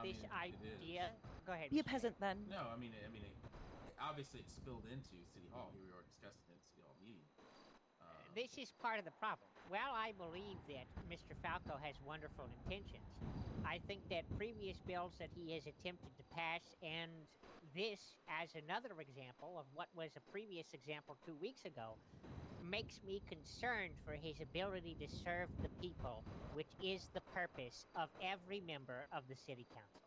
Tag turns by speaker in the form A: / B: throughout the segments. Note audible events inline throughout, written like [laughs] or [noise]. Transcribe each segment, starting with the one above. A: British
B: mean, it is.
A: idea. Go ahead.
C: Be a
A: Michelle.
C: peasant then.
B: No, I mean, I mean, it, obviously it spilled into City Hall. Here we are discussing it at City Hall meeting. Um,
A: This is part of the problem. While I believe that Mr. Falco has wonderful intentions, I think that previous bills that he has attempted to pass, and this as another example of what was a previous example two weeks ago, makes me concerned for his ability to serve the people, which is the purpose of every member of the city council.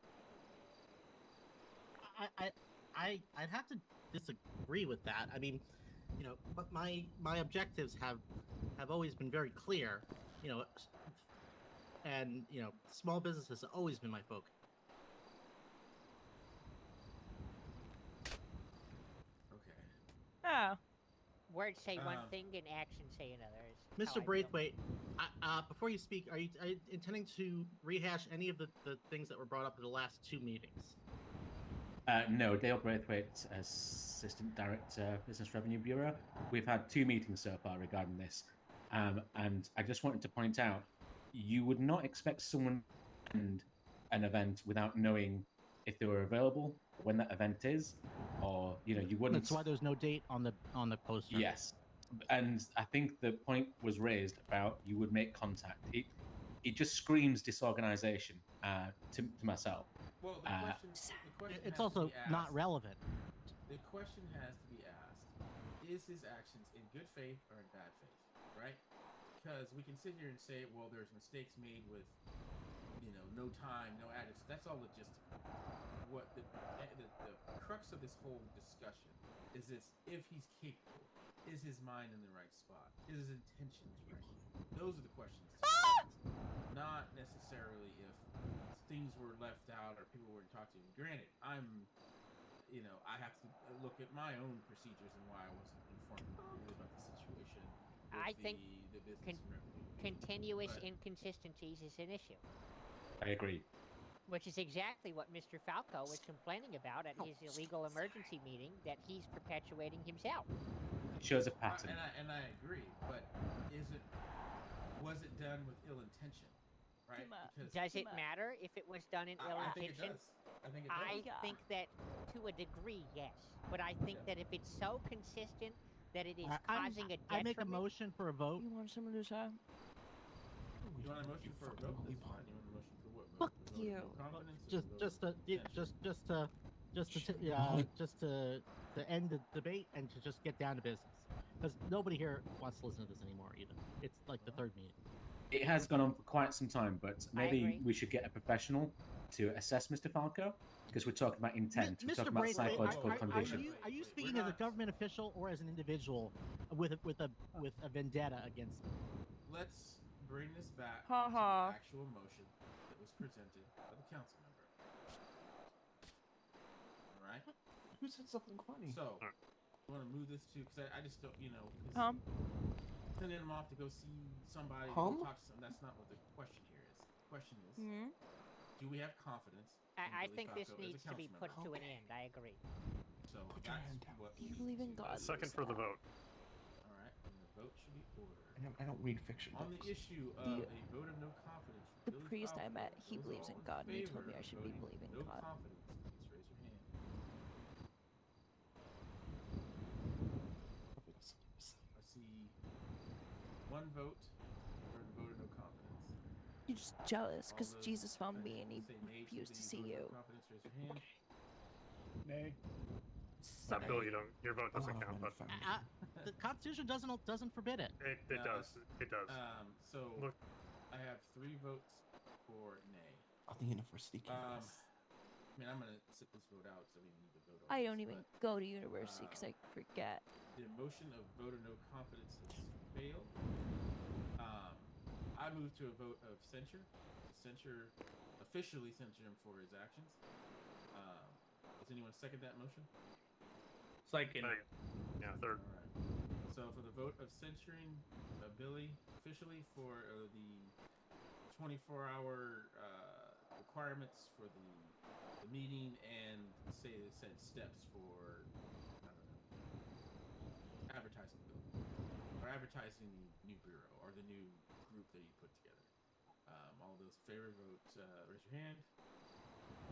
D: I, I, I, I'd have to disagree with that. I mean, you know, but my my objectives have have always been very clear. You know, and you know, small business has always been my focus.
B: okay.
C: Oh.
A: Words say
B: Uh,
A: one thing and actions say another. is how I
D: Mr.
A: feel.
D: Braithwaite, I, uh, before you speak, are you, are you intending to rehash any of the, the things that were brought up at the last two meetings?
E: Uh, no, Dale Braithwaite, uh, Assistant Director, Business Revenue Bureau. We've had two meetings so far regarding this. Um, and I just wanted to point out you would not expect someone to attend an event without knowing if they were available, when that event is, or, you know, you wouldn't.
D: That's why there's no date on the on the poster.
E: Yes, and I think the point was raised about you would make contact. It it just screams disorganization uh, to, to myself.
B: Well, the
E: Uh,
B: question, the question has
D: It's
B: to
D: also
B: be asked-
D: not relevant.
B: The question has to be asked: Is his actions in good faith or in bad faith? Right? Because we can sit here and say, well, there's mistakes made with, you know, no time, no address. That's all logistical. What the, eh, the the crux of this whole discussion is this: if he's capable, is his mind in the right spot? Is his intentions right? Those are the questions.
A: Ah!
B: Not necessarily if things were left out or people weren't talked to. Granted, I'm you know, I have to look at my own procedures and why I wasn't informed really about the situation. with
A: I
B: the,
A: think
B: the business
A: con-
B: and revenue.
A: Continuous
B: But-
A: inconsistencies is an issue.
E: I agree.
A: Which is exactly what Mr. Falco was complaining about
D: Oh,
A: at his illegal emergency meeting that he's perpetuating himself.
E: It shows a
B: I-
E: pattern.
B: and I and I agree, but is it was it done with ill intention, right?
F: much.
B: Because
A: Does it
F: But-
A: matter if it was done in
B: I,
A: ill
B: I think it
A: intention?
B: does. I think it does.
D: Oh,
A: I
F: Yeah.
A: think that to a degree, yes. But I think
B: Yeah.
A: that if it's so consistent that it is
D: I- I'm-
A: causing a
D: I make a
A: detriment,
D: motion for a vote.
F: You want someone to say?
B: you want a motion for a vote? That's fine. You want a motion for what? Vote-
F: Fuck
B: vote of
F: you.
B: confidence or
D: just
B: vote-
D: just to yeah, just just to just to t- uh, just to to end the debate and to just get down to business because nobody here wants to listen to this anymore either it's like the third meeting
E: It has gone on for quite some time, but maybe
A: agree.
E: we should get a professional to assess Mr. Falco because we're talking about intent. we're
D: mr
E: talking about
D: braithwaite
E: psychological
D: are, are, are
E: condition.
D: you are you
B: We're
D: speaking as a
B: not-
D: government official or as an individual with a, with a with a vendetta against me?
B: Let's bring this back
F: Ha
B: to the
F: ha.
B: actual motion that was presented by the council member. All
G: [laughs]
B: right.
G: Who said something funny?
B: So, you want to move this to? Because I, I just don't, you know, 'cause
F: Hum?
B: sending him off to go see somebody,
G: Hum?
B: go talk to some. That's not what the question here is. The question is,
F: Hmm?
B: do we have confidence? in
A: I, I
B: Billy
A: think this
B: Falco as a
A: needs to be
B: council
A: put
B: member?
A: to an
G: Okay.
A: end. I agree.
B: So
G: Put your
B: that's
G: hand down.
B: what
F: Do you
B: we
F: believe
B: need
F: in
B: to do.
F: God?
H: Second for the vote.
B: All right, and the vote should be
G: I
B: ordered.
G: don't, I don't read fiction.
B: On
G: books.
B: the issue of
F: The-
B: a vote of no confidence, for
F: the
B: Billy
F: priest I
B: Falco,
F: met, he
B: those
F: believes
B: all
F: in God, and he told
B: favor
F: me I
B: of
F: should be
B: voting
F: believing
B: no
F: God.
B: confidence, please raise your hand. I see one vote for the vote of no confidence.
F: You're just jealous
B: All
F: because
B: those
F: Jesus found
B: that
F: me and he
B: say nay
F: refused to
B: the
F: see
B: vote of no
F: you.
B: confidence, raise your hand.
G: Nay.
H: That bill, you don't. Your vote doesn't
G: Oh,
H: count, but
G: motherfucker.
D: Uh, the constitution doesn't doesn't forbid it
H: it, it
B: No,
H: does. It does.
B: Um, so
H: Look.
B: I have three votes for nay.
G: On the university
B: Um,
G: campus.
B: I mean, I'm gonna sit this vote out, so we need to vote. on
F: I
B: this,
F: don't even
B: but
F: go to university because I forget.
B: The motion of vote of no confidence has failed. Um, I move to a vote of censure. to Censure, officially censure him for his actions. Um, does anyone second that motion?
I: Second.
H: Second. Yeah, third.
B: Alright. So for the vote of censuring uh, Billy officially for uh, the 24-hour uh, requirements for the, the meeting and say the said steps for I don't know advertising the bill or advertising the new bureau or the new group that you put together. Um, all those in favor vote. Uh, raise your hand.